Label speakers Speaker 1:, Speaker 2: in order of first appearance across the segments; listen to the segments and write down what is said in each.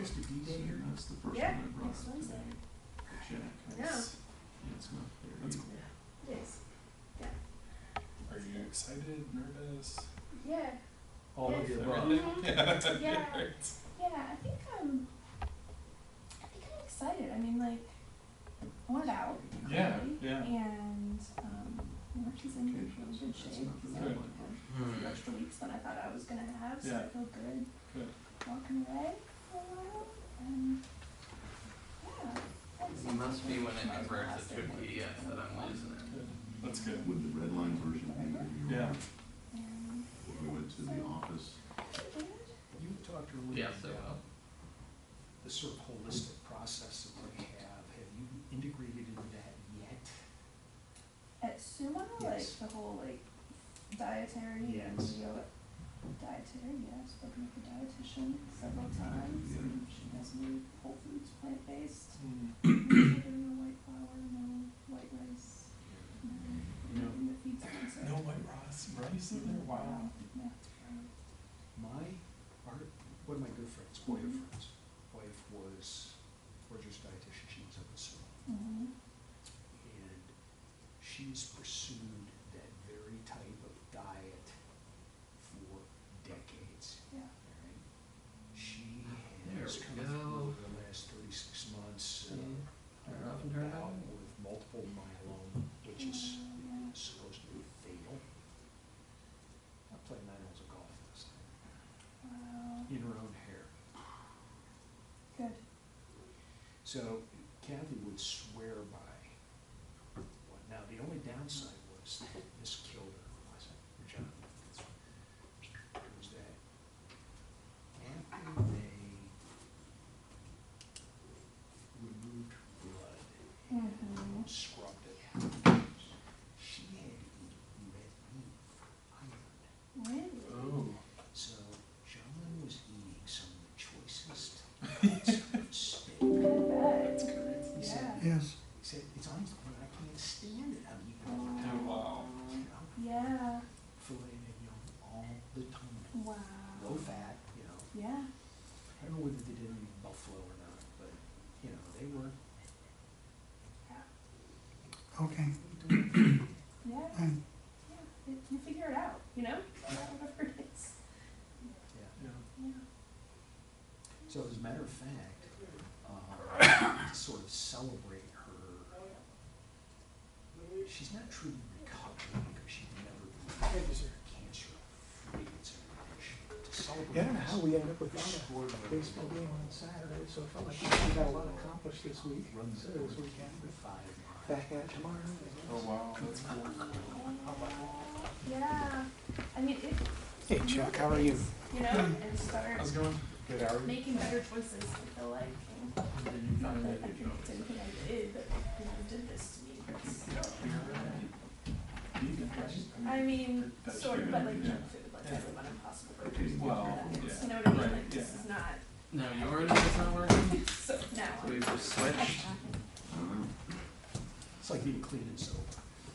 Speaker 1: Mr. D-Day here?
Speaker 2: That's the first one
Speaker 1: Yeah,
Speaker 2: I brought
Speaker 1: next
Speaker 2: up
Speaker 1: Wednesday.
Speaker 2: today. Check.
Speaker 1: I know.
Speaker 2: It's- Yeah, it's not there.
Speaker 3: That's
Speaker 2: either.
Speaker 3: cool.
Speaker 1: Yes.
Speaker 3: Are you excited, nervous? Oh,
Speaker 1: Yeah.
Speaker 3: All of
Speaker 1: Yes.
Speaker 3: the above.
Speaker 1: Mhm.
Speaker 3: Yeah.
Speaker 1: Yeah.
Speaker 3: Right.
Speaker 1: Yeah, I think I'm. I think I'm excited. I mean, like, I want it out.
Speaker 3: Yeah,
Speaker 1: clearly,
Speaker 3: yeah.
Speaker 1: And um, March is in
Speaker 2: Okay,
Speaker 1: really
Speaker 2: so
Speaker 1: good
Speaker 2: that's
Speaker 1: shape.
Speaker 2: not the
Speaker 1: So
Speaker 2: right
Speaker 1: I
Speaker 2: one.
Speaker 1: have some extra weeks than I thought I was gonna have, so
Speaker 3: Yeah.
Speaker 1: I feel good.
Speaker 3: Good.
Speaker 1: Walking away for a while, and yeah. that's-
Speaker 4: It must be when
Speaker 1: Might
Speaker 4: it
Speaker 1: as well
Speaker 4: converts
Speaker 1: last
Speaker 4: it to a
Speaker 1: anyway.
Speaker 4: PDF that I'm losing it.
Speaker 3: Good. That's good.
Speaker 2: Would the red line version be where you
Speaker 3: Yeah.
Speaker 2: were,
Speaker 1: And
Speaker 2: when we went to the office?
Speaker 1: good.
Speaker 5: You talked
Speaker 4: Yeah,
Speaker 5: earlier
Speaker 4: so
Speaker 5: about the sort of holistic process that we have. Have you integrated into that yet?
Speaker 1: At Sumo,
Speaker 5: Yes.
Speaker 1: like the whole like dietary and
Speaker 5: Yes.
Speaker 1: yoga dietary, yeah, I've spoken with the dietitian several times
Speaker 2: Yeah.
Speaker 1: and she has me whole foods plant based.
Speaker 3: Mm.
Speaker 1: no white flour, no white rice, no
Speaker 3: No.
Speaker 1: anything that feeds cancer.
Speaker 3: No white rice, rice in there? Wow.
Speaker 1: Yeah.
Speaker 5: My, our, one of my good friends, Boya friends, wife was Roger's dietitian, she was up in Seattle.
Speaker 1: Mm-hmm.
Speaker 5: and she's pursued that very type of diet for decades.
Speaker 1: Yeah.
Speaker 5: Alright. She
Speaker 4: There
Speaker 5: has
Speaker 4: we
Speaker 5: come
Speaker 4: go.
Speaker 5: through the last thirty-six months, uh,
Speaker 3: Mm.
Speaker 4: Turn it
Speaker 5: uh,
Speaker 4: off and turn it
Speaker 5: bout
Speaker 4: on.
Speaker 5: with multiple myeloma, which is
Speaker 1: Yeah.
Speaker 5: supposed to be fatal. I played nine holes of golf last night,
Speaker 1: Wow.
Speaker 5: in her own hair.
Speaker 1: Good.
Speaker 5: So Kathy would swear by what, now the only downside was that this killed her, was it, or John? Was that after they removed blood
Speaker 1: Mm-hmm.
Speaker 5: and scrubbed it, she had eaten red meat for iron.
Speaker 1: Really?
Speaker 2: Uh,
Speaker 3: Oh.
Speaker 5: So John was eating some of the choicest cuts of steak.
Speaker 1: Good.
Speaker 5: He
Speaker 1: Yeah.
Speaker 5: said,
Speaker 2: Yes.
Speaker 5: He said, it's on his plate, I can't stand it, I'm eating all the
Speaker 1: Oh,
Speaker 5: time.
Speaker 3: wow.
Speaker 5: You know,
Speaker 1: Yeah.
Speaker 5: filet mignon all the time,
Speaker 1: Wow.
Speaker 5: low fat, you know.
Speaker 1: Yeah.
Speaker 5: I don't know whether they did it in Buffalo or not, but, you know, they were
Speaker 6: Okay,
Speaker 5: doing it.
Speaker 1: Yeah.
Speaker 6: and
Speaker 1: Yeah, it, you figure it out, you know? Whatever it is.
Speaker 5: Yeah.
Speaker 3: Yeah.
Speaker 1: Yeah.
Speaker 5: So as a matter of fact, um, to sort of celebrate her, she's not truly recovered because she never was cancer free. It's a to celebrate.
Speaker 7: Yeah, I don't know how
Speaker 5: this,
Speaker 7: we ended up with that
Speaker 5: extraordinary
Speaker 7: baseball game on Saturday, so it felt like we got a lot accomplished this week,
Speaker 5: runs
Speaker 7: so
Speaker 5: over
Speaker 7: this weekend, but
Speaker 5: five miles.
Speaker 7: back at it tomorrow. I
Speaker 3: Oh,
Speaker 7: guess.
Speaker 3: wow. That's cool.
Speaker 1: Yeah. I mean, it.
Speaker 7: Hey, Chuck, how are you?
Speaker 1: You know, and start
Speaker 3: How's it going? Good, how are you?
Speaker 1: making better choices, I feel like. and
Speaker 3: Did you
Speaker 1: Not
Speaker 3: find
Speaker 1: that I
Speaker 3: that good
Speaker 1: think
Speaker 3: job?
Speaker 1: it's anything I did, but, you know, did this to me. It's-
Speaker 3: Vegan, right?
Speaker 1: I mean,
Speaker 3: That's
Speaker 1: sort of, but like
Speaker 3: yeah.
Speaker 1: junk food, like
Speaker 3: Yeah.
Speaker 1: everyone impossible burgers. You
Speaker 3: Well,
Speaker 1: know
Speaker 3: yeah,
Speaker 1: what I mean?
Speaker 3: right,
Speaker 1: Like, this
Speaker 3: yeah.
Speaker 1: is not,
Speaker 4: No, yours is not working?
Speaker 1: so now,
Speaker 4: So we've just switched?
Speaker 2: I don't know,
Speaker 5: It's like being clean and sober.
Speaker 2: it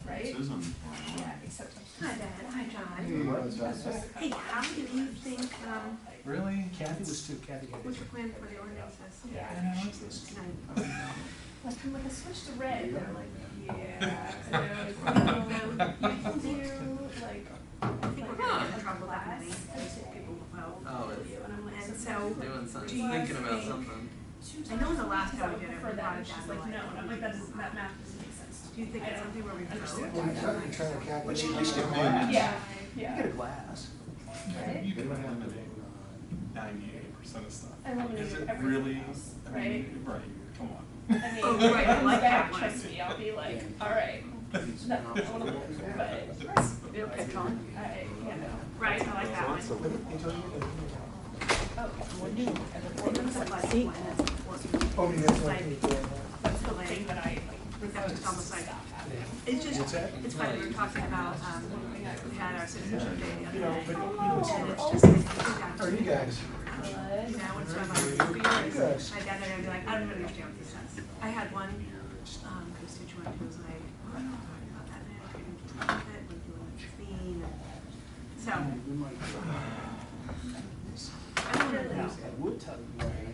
Speaker 1: right?
Speaker 2: says on.
Speaker 1: Yeah, except.
Speaker 8: Hi, Dad. Hi, John. Hey, how do you think, um,
Speaker 3: Really?
Speaker 5: Kathy was too, Kathy had.
Speaker 8: what's your plan for the ordinances?
Speaker 1: Yeah.
Speaker 3: Yeah,
Speaker 5: She
Speaker 3: it's-
Speaker 5: was.
Speaker 8: Tonight.
Speaker 1: Like, I'm like, I switched to red, and they're like, yeah, I know, I can do, like,
Speaker 8: I think we're gonna get in trouble that night.
Speaker 4: Oh,
Speaker 1: you, and I'm like,
Speaker 8: And
Speaker 1: so
Speaker 8: so,
Speaker 4: it's doing
Speaker 8: Do
Speaker 4: something,
Speaker 8: you
Speaker 4: thinking about
Speaker 8: think-
Speaker 4: something.
Speaker 1: two
Speaker 8: I know
Speaker 1: times
Speaker 8: the last
Speaker 1: because
Speaker 8: time
Speaker 1: I
Speaker 8: we did
Speaker 1: went for
Speaker 8: it, we
Speaker 1: that,
Speaker 8: brought
Speaker 1: and
Speaker 8: it down
Speaker 1: she's
Speaker 8: to
Speaker 1: like,
Speaker 8: like-
Speaker 1: no, and I'm like, that doesn't, that math doesn't make sense.
Speaker 8: do you think it's something where we can
Speaker 1: Understand.
Speaker 8: go?
Speaker 7: Well, I tried to turn the
Speaker 5: But
Speaker 7: calculator
Speaker 5: she at
Speaker 7: on.
Speaker 5: least did
Speaker 3: Yeah.
Speaker 5: that.
Speaker 1: Yeah,
Speaker 5: You get
Speaker 1: yeah.
Speaker 5: a glass.
Speaker 1: Right?
Speaker 3: You can eliminate uh, ninety-eight percent of stuff.
Speaker 1: I eliminated
Speaker 3: Is it
Speaker 1: everything
Speaker 3: really?
Speaker 1: else,
Speaker 3: I
Speaker 1: right?
Speaker 3: mean, Right, come on.
Speaker 1: I mean,
Speaker 8: Oh, right, I
Speaker 1: when
Speaker 8: like
Speaker 1: back,
Speaker 8: that one.
Speaker 1: trust me, I'll be like, all right, not eliminable, but,
Speaker 8: It'll catch on.
Speaker 1: I, you know,
Speaker 8: Right, I like that one.
Speaker 1: oh,
Speaker 8: It's like one that's important.
Speaker 7: Oh, yeah, that's what
Speaker 8: Like,
Speaker 7: we did.
Speaker 8: That's the
Speaker 1: thing
Speaker 8: way,
Speaker 1: that I like.
Speaker 8: that's just almost like, it's
Speaker 5: What's
Speaker 8: just,
Speaker 5: that?
Speaker 8: it's funny, we were talking about, um, we had our citizenship day the other
Speaker 5: You know,
Speaker 8: day.
Speaker 5: but you know, it's
Speaker 8: And
Speaker 5: never-
Speaker 8: it's just,
Speaker 7: How are you guys?
Speaker 1: Good.
Speaker 8: You know, it's sort of like, for years, my dad and I would be like, I don't really understand what this says. I had one, um, constituent who was like, "Oh, I don't know about that, man, I couldn't deal with it, like, doing the clean. So,
Speaker 5: We might try.
Speaker 8: I don't know.
Speaker 5: Now, I would tell you,